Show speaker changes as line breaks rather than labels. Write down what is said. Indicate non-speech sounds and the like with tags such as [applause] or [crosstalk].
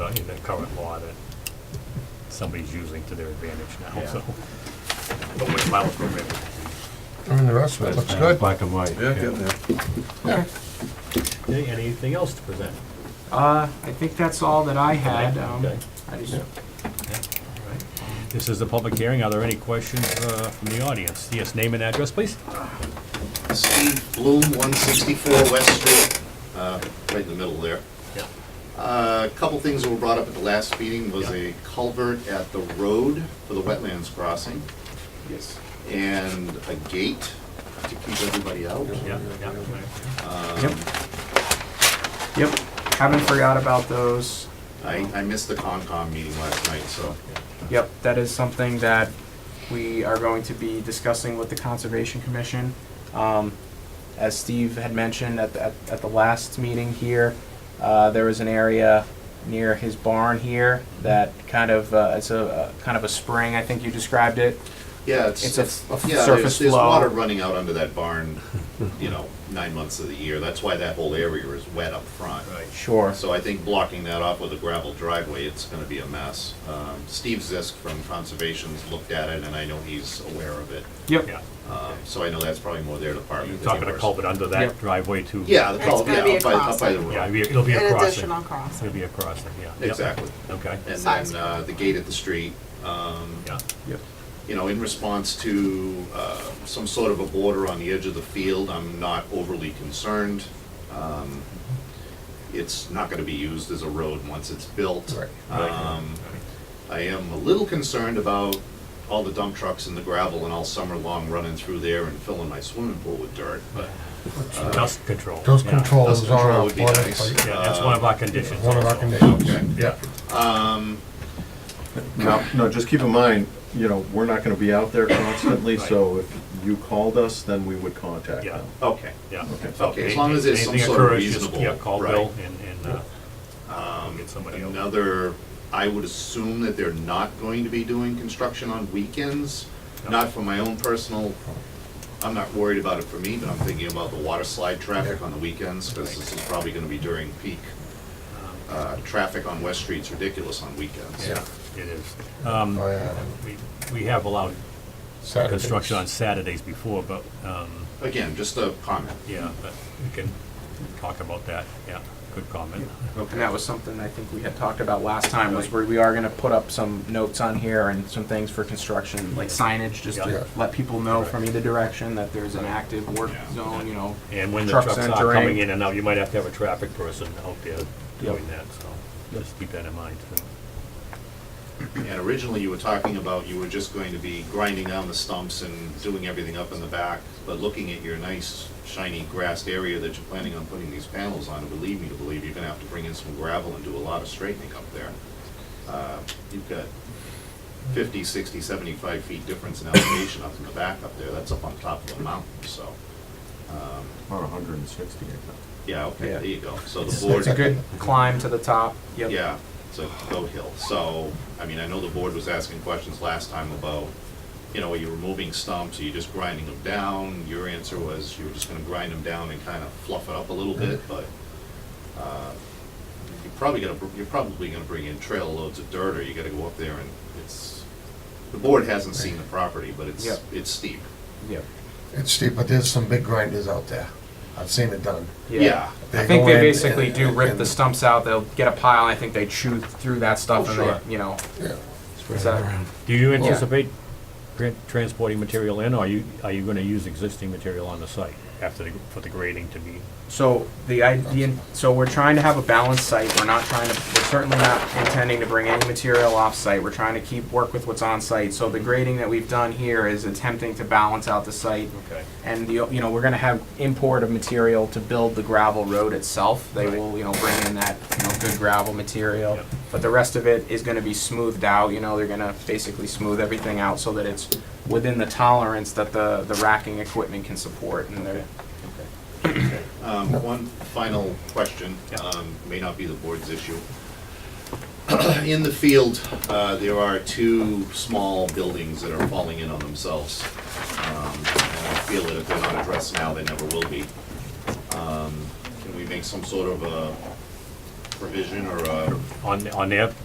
in the current law that somebody's using to their advantage now, so. But with my program,
I mean, the rest of it looks good.
Black and white.
Yeah, getting there.
okay, anything else to present?
Uh, I think that's all that I had. Um,
Okay.
I just,
This is the public hearing. Are there any questions uh, from the audience? Yes, name and address, please.
Steve Bloom, 164 West Street, uh, right in the middle there. Uh,
Yeah.
A couple things that were brought up at the last meeting was
Yeah.
a culvert at the road for the wetlands crossing
Yes.
and a gate to keep everybody out.
Yeah, yeah, right.
yep. Yep, haven't forgot about those.
I, I missed the Concom meeting last night, so
Yep, that is something that we are going to be discussing with the Conservation Commission. Um, as Steve had mentioned at, the- at, at the last meeting here, uh, there was an area near his barn here that kind of, uh, it's a, a- kind of a spring, I think you described it.
Yeah, it's,
It's a
it's,
f- a
yeah,
surface
there's, there's
flow.
water running out under that barn, you know, nine months of the year. That's why that whole area is wet up front. Right.
Sure.
So I think blocking that off with a gravel driveway, it's gonna be a mess. Um, Steve Zisk from Conservation's looked at it, and I know he's aware of it.
Yep.
Yeah.
Um, So I know that's probably more their department.
You're
than
talking a
yours.
culvert under that
Yep.
driveway too.
Yeah, the
It's
culvert,
gonna be
yeah,
a
up by, up by the
crossing.
Yeah, it'll
road.
be- it'll be a
An
crossing.
additional crossing.
It'll be a crossing, yeah. Yep.
Exactly.
Okay,
And
Size.
then uh, the gate at the street, um,
yeah.
Yep.
you know, in response to uh, some sort of a border on the edge of the field, I'm not overly concerned. Um, It's not gonna be used as a road once it's built. Um, I am a little concerned about all the dump trucks and the gravel and all summer long running through there and filling my swimming pool with dirt, but uh,
Dust control.
Those
yeah.
controls
dust
are
control
our
would be
flooding
nice.
fight.
Yeah, that's one of our conditions.
One of our
also.
conditions.
Okay.
Yeah.
No, no, just keep in mind, you know, we're not gonna be out there constantly, so if you called us, then we would contact
Yeah,
them.
okay.
yeah.
Okay, as long as there's some
Anything
sort of
occurs, just,
reasonable-
Yeah, call
right. Um,
Bill and, and, uh, we'll get somebody else.
Another, I would assume that they're not going to be doing construction on weekends,
No.
not for my own personal, I'm not worried about it for me, but I'm thinking about the water slide traffic on the weekends, because this is probably gonna be during peak. Uh, traffic on West Street's ridiculous on
Um,
weekends.
Yeah, it is.
Oh, yeah.
We, we have allowed
Saturdays.
construction on Saturdays before, but, um,
Again, just a comment.
yeah, but we can talk about that, yeah, good comment.
And that was something I think we had talked about last time, was where we are gonna put up some notes on here and some things for construction, like signage, just
Yeah.
to let people know from either direction that there's an active work
Yeah.
zone, you know.
And when the
Trucks
trucks are
entering.
coming in and out, you might have to have a traffic person out there doing that, so just keep that in mind.
And originally you were talking about you were just going to be grinding down the stumps and doing everything up in the back, but looking at your nice shiny grassed area that you're planning on putting these panels on, believe me to believe, you're gonna have to bring in some gravel and do a lot of straightening up there. Uh, You've got 50, 60, 75 feet difference in elevation up in the back up there, that's up on top of a mountain, so,
About hundred and sixty, I think.
yeah, okay,
Yeah.
there you go. So the board.
It's a good climb to the top, yep.
Yeah, it's a hill. So, I mean, I know the board was asking questions last time about, you know, are you removing stumps, are you just grinding them down? Your answer was you were just gonna grind them down and kind of fluff it up a little bit, but, uh, you're probably gonna, br- you're probably gonna bring in trail loads of dirt, or you gotta go up there and it's, the board hasn't seen the property, but it's,
Yep.
it's steep.
Yep.
It's steep, but there's some big grinders out there. I've seen it done.
Yeah,
I think
go
they
in
basically
and-
do rip
and-
the stumps out, they'll get a pile, and I think they chew through that stuff
Oh,
and
sure.
they, you know.
Yeah.
it's a-
Do you anticipate tran- transporting material in, or are you, are you gonna use existing material on the site after the, for the grading to be?
So the idea, so we're trying to have a balanced site, we're not trying to, we're certainly not intending to bring any material off-site, we're trying to keep, work with what's on-site. So the grading that we've done here is attempting to balance out the site.
Okay.
And the, you know, we're gonna have import of material to build the gravel road itself. They
Right.
will, you know, bring in that, you know, good gravel material.
Yep.
But the rest of it is gonna be smoothed out, you know, they're gonna basically smooth everything out so that it's within the tolerance that the, the racking equipment can support and they're,
Um, One final question,
Yeah.
um, may not be the board's issue. [clears throat] In the field, uh, there are two small buildings that are falling in on themselves. Um, And I feel that if they're not addressed now, they never will be. Um, Can we make some sort of a
provision or a
on, on their